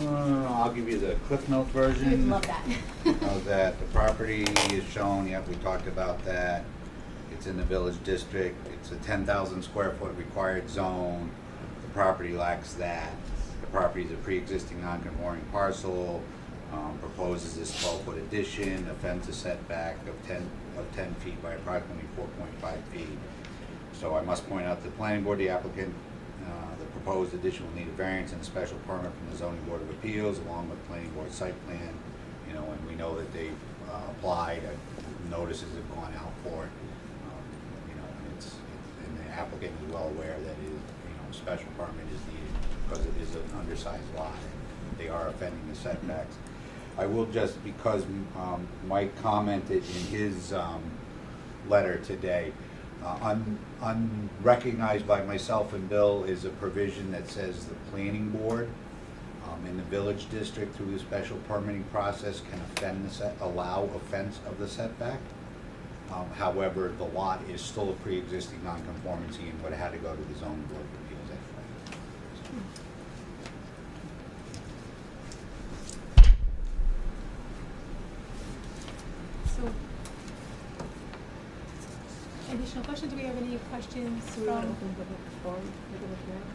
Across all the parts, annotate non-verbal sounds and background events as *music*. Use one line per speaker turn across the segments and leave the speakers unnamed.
Uh, I'll give you the Cliff Note version.
You'd love that.
of that, the property is shown, yep, we talked about that. It's in the village district, it's a ten thousand square foot required zone, the property lacks that. The property is a pre-existing non-conforming parcel, um, proposes this twelve foot addition, offends a setback of ten, of ten feet by approximately four point five feet. So I must point out to the planning board, the applicant, uh, the proposed addition will need a variance and a special permit from the zoning board of appeals along with planning board site plan. You know, and we know that they've uh, applied, uh, notices have gone out for it. Um, You know, and it's, it's- and the applicant is well aware that it, you know, special permit is needed because it is an undersized lot. They are offending the setbacks. I will just, because um, Mike commented in his um, letter today. Uh, un- Unrecognized by myself and Bill is a provision that says the planning board um, in the village district through the special permitting process can offend the set, allow offense of the setback. Um, However, the lot is still a pre-existing nonconformity and would have had to go to the zoning board of appeals anyway.
So, additional questions? Do we have any questions
we wanna
from?
open public forum, public hearing?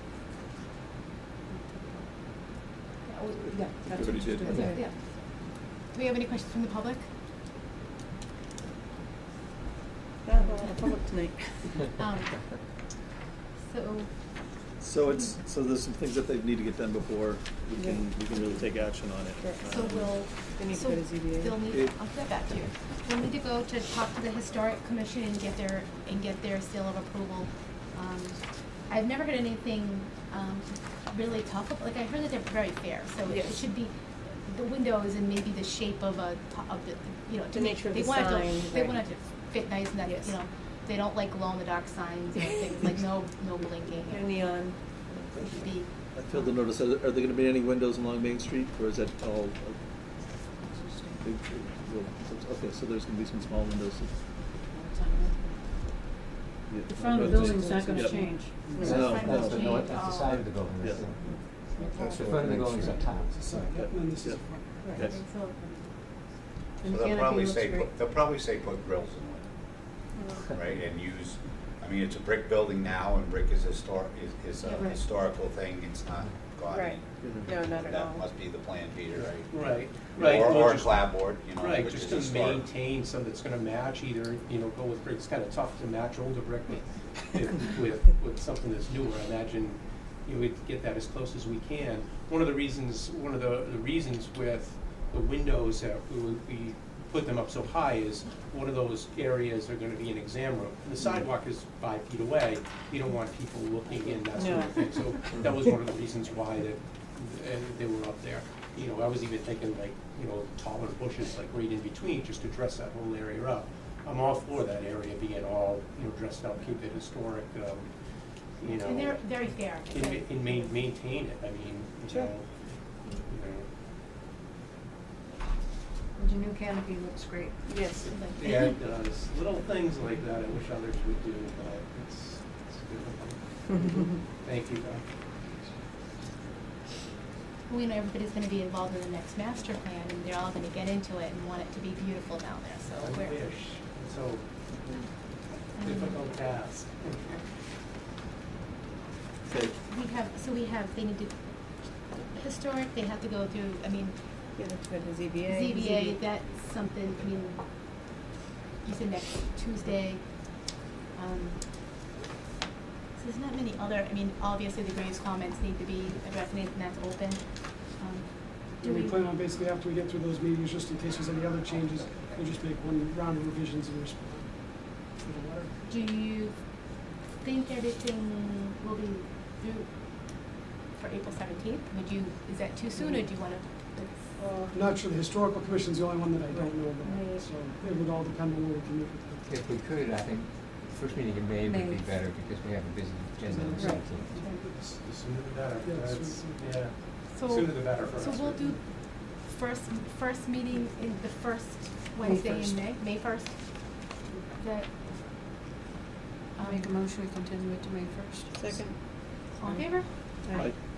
Yeah, we- yeah, that's
Everybody
what you
did.
do.
Okay.
Yeah.
Do we have any questions from the public?
Yeah, well, the public
*laughs*
tonight.
Um, So,
So it's, so there's some things that they need to get done before we can, we can really take action on
Sure.
it.
so
Um,
we'll,
They need to
so
go to ZBA.
they'll need,
It-
I'll get back to you. We'll need to go to talk to the historic commission and get their, and get their seal of approval. Um, I've never heard anything, um, really tough, like I heard that they're very fair, so it- it
Yes.
should be, the windows and maybe the shape of a, to- of the, you know, to
The
me,
nature of
they
the
want it to-
sign,
They
right.
want it to fit nice and that,
Yes.
you know, they don't like glow in the dark signs and
*laughs*
things, like no, no blinking.
No neon.
It should be,
I filled the notice, are there are there gonna be any windows along Main Street, or is that all? uh, big- well, so- Okay, so there's gonna be some small windows. Yeah.
The front of the building's not gonna
Yeah.
change.
No,
No,
that's
no.
That's the north, that's the side of the building, that's
Yeah.
the, the front of the building's up top.
Yeah. Yeah.
Right.
Yes.
And
So
the
they'll
canopy
probably
looks
say,
great.
put- they'll probably say put grills in it. right, and use, I mean, it's a brick building now, and brick is historic, is, is a
Yeah, right.
historical thing, it's not gaudy.
Right. No, not at
That
all.
must be the plan, Peter, right?
Right, right.
Or,
we'll
or
just-
clapboard, you know,
Right,
which is
just to
historic.
maintain some that's gonna match either, you know, go with brick, it's kinda tough to match older brick with, if- with, with something that's newer, I imagine, you know, we'd get that as close as we can. One of the reasons, one of the, the reasons with the windows that we, would- we put them up so high is, one of those areas are gonna be an exam room, and the sidewalk is five feet away, you don't want people looking in, that sort of
No.
thing, so that was one of the reasons why that, and they were up there. You know, I was even thinking like, you know, taller bushes like right in between, just to dress that whole area up. I'm all for that area being all, you know, dressed up, keep it historic, um, you know.
and they're very fair.
And, ma- and ma- maintain it, I mean, you
Sure.
know, you know.
And your new canopy looks great.
Yes.
*laughs*
Like-
Yeah, it does. Little things like that I wish others would do, but it's, it's good. Thank you, Doc.
*laughs* We know everybody's gonna be involved in the next master plan, and they're all gonna get into it and want it to be beautiful down there, so
I
we're.
wish, it's so
um,
difficult task. *laughs*
Okay.
We have, so we have, they need to, historic, they have to go through, I mean,
Yeah, that's good, the ZBA.
ZBA, that's something, I mean, you said next Tuesday. Um, So there's not many other, I mean, obviously the Graves comments need to be addressed, and that's open. Um, Do
And
we?
we plan on basically after we get through those meetings, just in case there's any other changes, we'll just make one round of revisions and respond to the letter.
Do you think everything will be through for April seventeenth? Would you, is that too soon, or do you wanna?
Uh, I'm not sure, the historical commission's the only one that I don't know
Right.
about, so it would all depend on where we can meet with them.
If we could, I think, first meeting in May would be better, because we have a busy agenda on the
Right.
seventeenth.
S- The sooner the better,
Yeah,
that's,
sooner
yeah,
So-
sooner the better for us.
So we'll do first, first meeting in the first Wednesday in
1st.
May, May first? That,
I'll
um,
make a motion, we continue it to May first.
Second.
all in favor?
Aye.
Right.